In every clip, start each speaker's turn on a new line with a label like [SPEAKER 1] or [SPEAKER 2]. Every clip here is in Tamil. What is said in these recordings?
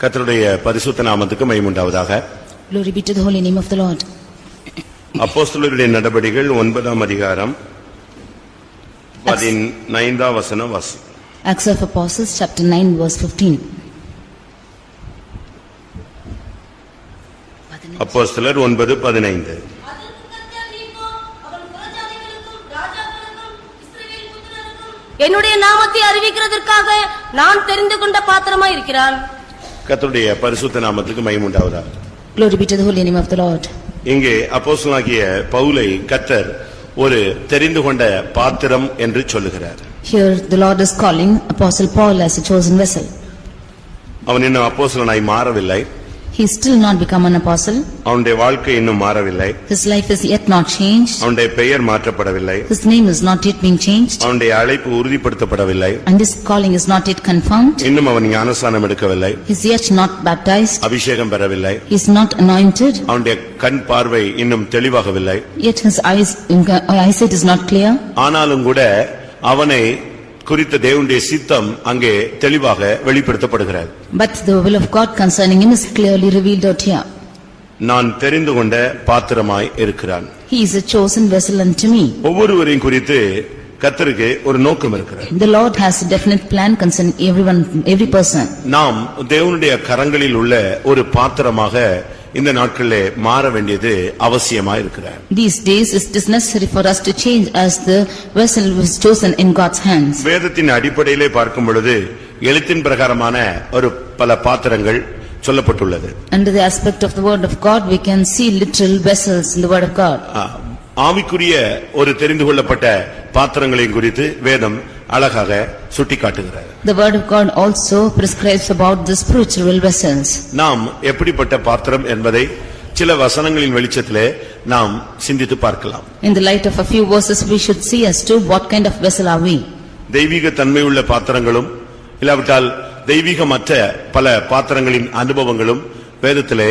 [SPEAKER 1] கர்த்தருடைய பரிசுத்த நாமத்துக்கு மைமுண்டாவதாக
[SPEAKER 2] Glory be to the holy name of the Lord.
[SPEAKER 1] அப்போஸ்தலருடைய நடபடிகள் ஒன்பதாம் அதிகாரம் பதினைந்தாம் வசனம் வாசி
[SPEAKER 2] Acts of Apostles, chapter 9, verse 15.
[SPEAKER 1] அப்போஸ்தலர் ஒன்பது பதினைந்து
[SPEAKER 3] என்னுடைய நாமத்தை அறிவிக்கிறதற்காக நான் தெரிந்து கொண்ட பாத்திரமா இருக்கிறான்
[SPEAKER 1] கர்த்தருடைய பரிசுத்த நாமத்துக்கு மைமுண்டாவதாக
[SPEAKER 2] Glory be to the holy name of the Lord.
[SPEAKER 1] இங்கே அப்போஸ்தலனாகிய பவுலை கர்த்தர் ஒரு தெரிந்து கொண்ட பாத்திரம் என்று சொல்லுகிறார்
[SPEAKER 2] Here the Lord is calling Apostle Paul as a chosen vessel.
[SPEAKER 1] அவன் இன்னும் அப்போஸ்தலனாய் மாறவில்லை
[SPEAKER 2] He is still not become an apostle.
[SPEAKER 1] அவனுடைய வாழ்க்கை இன்னும் மாறவில்லை
[SPEAKER 2] His life is yet not changed.
[SPEAKER 1] அவனுடைய பெயர் மாற்றப்படவில்லை
[SPEAKER 2] His name is not yet being changed.
[SPEAKER 1] அவனுடைய அழைப்பு உறுதிப்படுத்தப்படவில்லை
[SPEAKER 2] And his calling is not yet confirmed.
[SPEAKER 1] இன்னும் அவன் ஞானஸ்நானம் எடுக்கவில்லை
[SPEAKER 2] He is yet not baptized.
[SPEAKER 1] அபிஷேகம் பெறவில்லை
[SPEAKER 2] He is not anointed.
[SPEAKER 1] அவனுடைய கண் பார்வை இன்னும் தெளிவாகவில்லை
[SPEAKER 2] Yet his eyes, eyesight is not clear.
[SPEAKER 1] ஆனாலும் கூட அவனை குறித்த தேவனுடைய சித்தம் அங்கே தெளிவாக வெளிப்படுத்தப்படுகிறது
[SPEAKER 2] But the will of God concerning him is clearly revealed out here.
[SPEAKER 1] நான் தெரிந்து கொண்ட பாத்திரமாய் இருக்கிறான்
[SPEAKER 2] He is a chosen vessel unto me.
[SPEAKER 1] ஒவ்வொருவரையும் குறித்து கர்த்தருக்கு ஒரு நோக்கம் இருக்கிறது
[SPEAKER 2] The Lord has a definite plan concerning everyone, every person.
[SPEAKER 1] நாம் தேவனுடைய கரங்களில் உள்ள ஒரு பாத்திரமாக இந்த நாட்களிலே மாற வேண்டியது அவசியமாய் இருக்கிறார்
[SPEAKER 2] These days it is necessary for us to change as the vessel was chosen in God's hands.
[SPEAKER 1] வேதத்தின் அடிப்படையிலே பார்க்கும் பொழுது எழுத்தின் பிரகாரமான ஒரு பல பாத்திரங்கள் சொல்லப்பட்டுள்ளது
[SPEAKER 2] Under the aspect of the word of God, we can see literal vessels in the word of God.
[SPEAKER 1] ஆ, ஆவிக்குரிய ஒரு தெரிந்து கொள்ளப்பட்ட பாத்திரங்களையும் குறித்து வேதம் அழகாக சுட்டிக்காட்டுகிறது
[SPEAKER 2] The word of God also prescribes about the spiritual vessels.
[SPEAKER 1] நாம் எப்படிப்பட்ட பாத்திரம் என்பதை சில வசனங்களின் வெளிச்சத்திலே நாம் சிந்தித்து பார்க்கலாம்
[SPEAKER 2] In the light of a few verses, we should see as to what kind of vessel are we.
[SPEAKER 1] தெய்வீக தன்மை உள்ள பாத்திரங்களும் இல்லாவிட்டால் தெய்வீகமற்ற பல பாத்திரங்களின் அனுபவங்களும் வேதத்திலே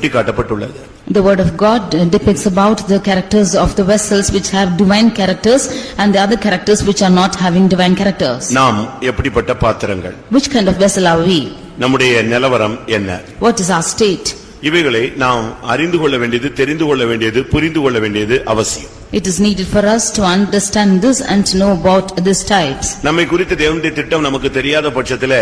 [SPEAKER 1] சுட்டிக்காட்டப்பட்டுள்ளது
[SPEAKER 2] The word of God uh, depicts about the characters of the vessels which have divine characters and the other characters which are not having divine characters.
[SPEAKER 1] நாம் எப்படிப்பட்ட பாத்திரங்கள்
[SPEAKER 2] Which kind of vessel are we?
[SPEAKER 1] நம்முடைய நிலவரம் என்ன
[SPEAKER 2] What is our state?
[SPEAKER 1] இவைகளை நாம் அறிந்து கொள்ள வேண்டியது தெரிந்து கொள்ள வேண்டியது புரிந்து கொள்ள வேண்டியது அவசியம்
[SPEAKER 2] It is needed for us to understand this and to know about these types.
[SPEAKER 1] நம்மை குறித்து தேவனுடைய திட்டம் நமக்கு தெரியாத பட்சத்துல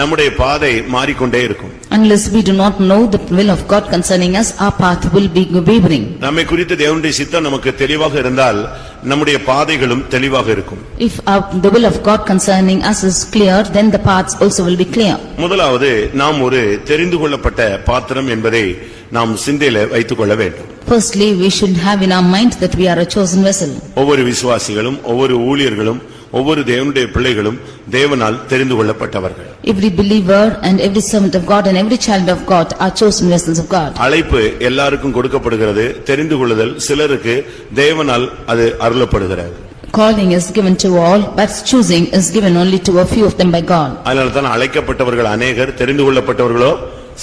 [SPEAKER 1] நம்முடைய பாதை மாறிக்கொண்டே இருக்கும்
[SPEAKER 2] Unless we do not know the will of God concerning us, our path will be wavering.
[SPEAKER 1] நம்மை குறித்து தேவனுடைய சித்தம் நமக்கு தெளிவாக இருந்தால் நம்முடைய பாதைகளும் தெளிவாக இருக்கும்
[SPEAKER 2] If our- the will of God concerning us is clear, then the paths also will be clear.
[SPEAKER 1] முதலாவது நாம் ஒரு தெரிந்து கொள்ளப்பட்ட பாத்திரம் என்பதை நாம் சிந்தையில வைத்துக் கொள்ள வேண்டும்
[SPEAKER 2] Firstly, we should have in our mind that we are a chosen vessel.
[SPEAKER 1] ஒவ்வொரு விசுவாசிகளும் ஒவ்வொரு ஊழியர்களும் ஒவ்வொரு தேவனுடைய பிள்ளைகளும் தேவனால் தெரிந்து கொள்ளப்பட்டவர்கள்
[SPEAKER 2] Every believer and every servant of God and every child of God are chosen vessels of God.
[SPEAKER 1] அழைப்பு எல்லாருக்கும் கொடுக்கப்படுகிறது தெரிந்து கொள்ளுதல் சிலருக்கு தேவனால் அது அருளப்படுகிறது
[SPEAKER 2] Calling is given to all, but choosing is given only to a few of them by God.
[SPEAKER 1] அதனால தான் அழைக்கப்பட்டவர்கள் அநேகர் தெரிந்து கொள்ளப்பட்டவர்களோ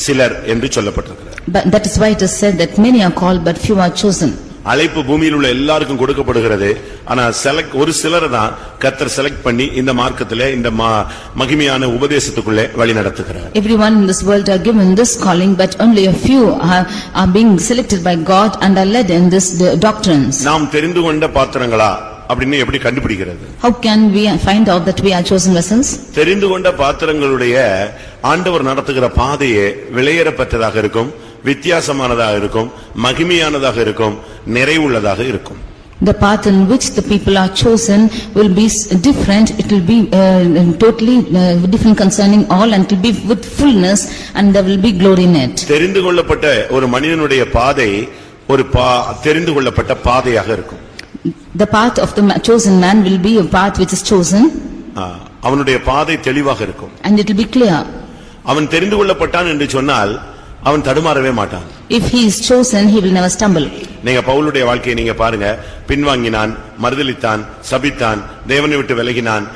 [SPEAKER 1] சிலர் என்று சொல்லப்பட்டிருக்கிறது
[SPEAKER 2] But that is why it is said that many are called but few are chosen.
[SPEAKER 1] அழைப்பு பூமியில் உள்ள எல்லாருக்கும் கொடுக்கப்படுகிறது ஆனா செலக்ட் ஒரு சிலரை தான் கத்தர் செலக்ட் பண்ணி இந்த மார்க்கத்திலே இந்த ம- மகிமையான உபதேசத்துக்குள்ளே வழி நடத்துகிறார்
[SPEAKER 2] Everyone in this world are given this calling, but only a few are, are being selected by God and are led in this the doctrines.
[SPEAKER 1] நாம் தெரிந்து கொண்ட பாத்திரங்களா அப்படின்னு எப்படி கண்டுபிடிக்கிறது
[SPEAKER 2] How can we find out that we are chosen vessels?
[SPEAKER 1] தெரிந்து கொண்ட பாத்திரங்களுடைய ஆண்டவர் நடத்துகிற பாதையே விலையேறப்பட்டதாக இருக்கும் வித்தியாசமானதாக இருக்கும் மகிமையானதாக இருக்கும் நிறைவுள்ளதாக இருக்கும்
[SPEAKER 2] The path in which the people are chosen will be s- different, it will be uh, totally uh, different concerning all and it will be with fullness and there will be glory in it.
[SPEAKER 1] தெரிந்து கொள்ளப்பட்ட ஒரு மனிதனுடைய பாதை ஒரு பா தெரிந்து கொள்ளப்பட்ட பாதையாக இருக்கும்
[SPEAKER 2] The path of the ma- chosen man will be a path which is chosen
[SPEAKER 1] ஆ, அவனுடைய பாதை தெளிவாக இருக்கும்
[SPEAKER 2] and it will be clear.
[SPEAKER 1] அவன் தெரிந்து கொள்ளப்பட்டான் என்று சொன்னால் அவன் தடுமாறவே மாட்டான்
[SPEAKER 2] If he is chosen, he will never stumble.
[SPEAKER 1] நீங்க பவுலுடைய வாழ்க்கையை நீங்க பாருங்க பின்வாங்கினான் மறுதலித்தான் சபித்தான் தேவனை விட்டு விலகினான்